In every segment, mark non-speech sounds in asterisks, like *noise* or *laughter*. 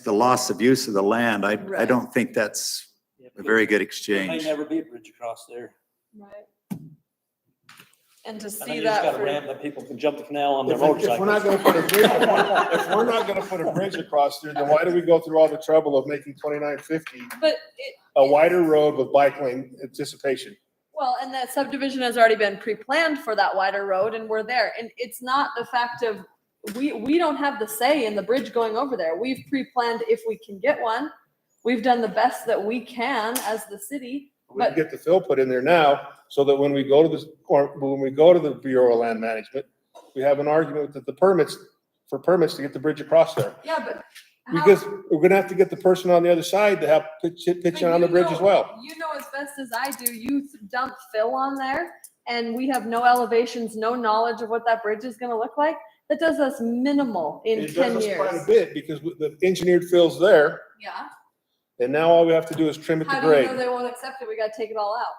the loss of use of the land, I, I Right. don't think that's Yeah, a very good There may exchange. never be a bridge across there. Right. And to I think see you just that gotta for, ramp that people can jump the canal on their If it- if we're not motorcycles. gonna put a bridge, if we're not gonna put a bridge across there, then why do we go through all the trouble of making twenty-nine fifty but it, a wider road with bike lane anticipation? well, and that subdivision has already been pre-planned for that wider road and we're there. And it's not the fact of, we, we don't have the say in the bridge going over there. We've pre-planned if we can get one. We've done the best that we can as the city. We can But- get the fill put in there now, so that when we go to this, or when we go to the Bureau of Land Management, we have an argument that the permits, for permits to get the bridge across there. Yeah, but. how- Because we're gonna have to get the person on the other side to have pitch, pitch But in on you the bridge as know- well. You know as best as I do, you th- dump fill on there and we have no elevations, no knowledge of what that bridge is gonna look like. That does us minimal in It does ten us quite a years. bit, because with the engineered fill's there, Yeah. and now all we have to do is trim it to How do you know grade. they won't accept it? We gotta take it all out.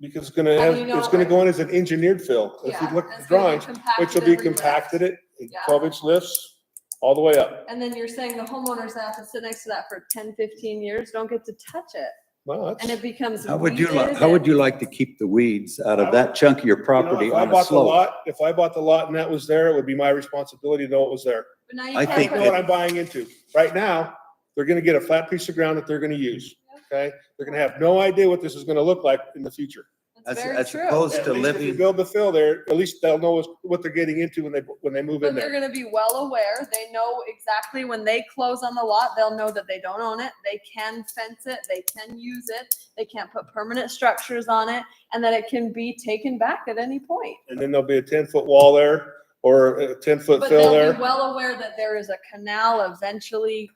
Because it's gonna How do have, you know it's gonna it- go in as an engineered fill. If Yeah, you look and at the it's gonna drawings, get which compacted will be everywhere. compacted it, in Yeah. twelve inch lifts, all the way up. And then you're saying the homeowners that have to sit next to that for 10, 15 years, don't get to touch it Well, and that's. it becomes. How would you, li- weeded how would and- you like to keep the weeds out I of that chunk of your you know, property if I on a bought the slope? lot- If I bought the lot and that was there, it would be my responsibility to know it was there. But now you I can't think I put- know what I'm buying into. Right now, they're gonna get a flat piece of ground that they're gonna use, okay? They're gonna have no idea what this is gonna look like in the future. That's As, very as true. opposed to At least if you living, build the fill there, at least they'll know what they're getting into when they, when they move in But they're there. gonna be well aware, they know exactly when they close on the lot, they'll know that they don't own it, they can fence it, they can use it, they can't put permanent structures on it, and that it can be taken back at any point. And then there'll be a ten-foot wall there or a ten-foot But fill they'll be there. well aware that there is a canal eventually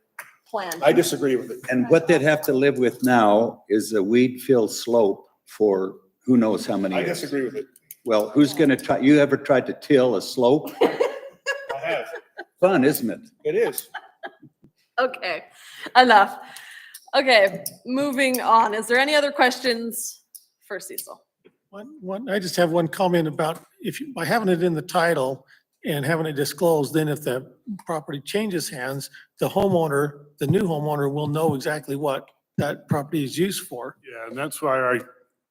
planned. I disagree with it. and what they'd have to live with now is a weed-filled slope for who knows how many I years. disagree with it. Well, who's gonna try, you ever tried to till a slope? I have. Fun, isn't it? It is. *laughs* Okay, enough. Okay, moving on, is there any other questions for Cecil? One, one, I just have one comment about if you, by having it in the title and having it disclosed, then if the property changes hands, the homeowner, the new homeowner will know exactly what that property is used for. Yeah, and that's why I,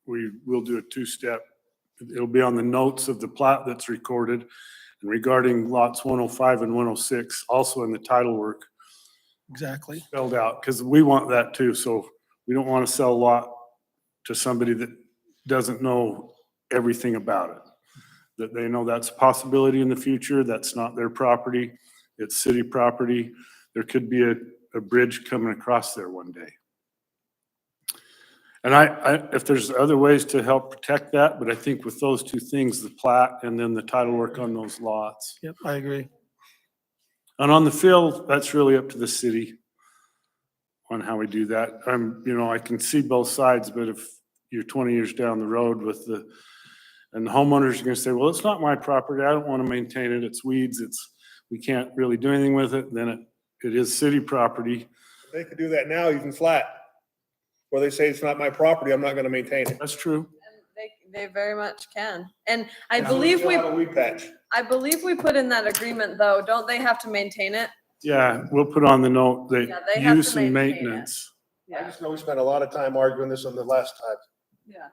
we will do a two-step. It'll be on the notes of the plat that's recorded and regarding lots one oh five and one oh six, also in the title work Exactly. spelled out, because we want that too. So we don't want to sell a lot to somebody that doesn't know everything about it. That they know that's a possibility in the future, that's not their property, it's city property. There could be a, a bridge coming across there one day. And I, I, if there's other ways to help protect that, but I think with those two things, the plat and then the title work on those lots. Yep, I agree. And on the field, that's really up to the city on how we do that. I'm, you know, I can see both sides, but if you're twenty years down the road with the, and the homeowners are gonna say, well, it's not my property, I don't wanna maintain it, it's weeds, it's, we can't really do anything with it, then it, it is city property. They could do that now even flat. Where they say it's not my property, I'm not gonna maintain it. That's And true. They, they very much can, and I Yeah. believe we. Still have a weed patch. I believe we put in that agreement though, don't they have to maintain it? Yeah, we'll put on the note Yeah, that they have to use and maintain it. maintenance. I just know we spent a lot of time arguing this on the last time. Yeah.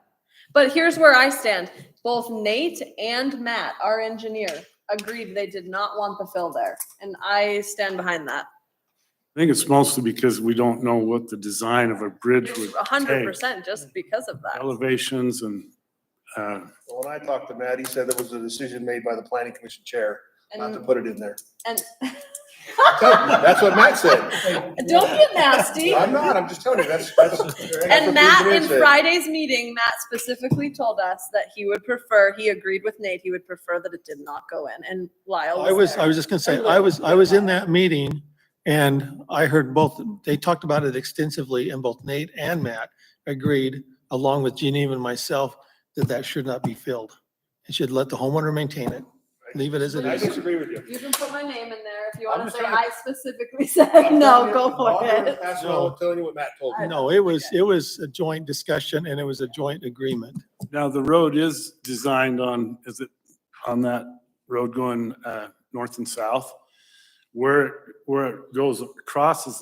But here's where I stand. Both Nate and Matt, our engineer, agreed they did not want the fill there. And I stand behind that. I think it's mostly because we don't know what the design of a bridge would, A hundred percent just because of that. elevations and, uh, But When I talked to Matt, he said that was a decision made by the planning commission chair not to And, put it in there. and That's what Matt said. *laughs* don't get nasty. *laughs* I'm not, I'm just telling you, that's, that's. that's what the And Matt, engineer in said. Friday's meeting, Matt specifically told us that he would prefer, he agreed with Nate, he would prefer that it did not go in and Lyle I was, there. I was just gonna say, I was, I was in that meeting and I heard both, they talked about it extensively and both Nate and Matt agreed, along with Geneva and myself, that that should not be filled. It should let the homeowner maintain it, leave it as it I is. disagree with you. You can put my name in there if you I'm want to just say trying to- I specifically *laughs* said *laughs* no, go for it. That's all I'm telling you what Matt told me. No, it was, it was a joint discussion and it was a joint agreement. Now, the road is designed on, is it on that road going uh, north and south? Where, where it goes, crosses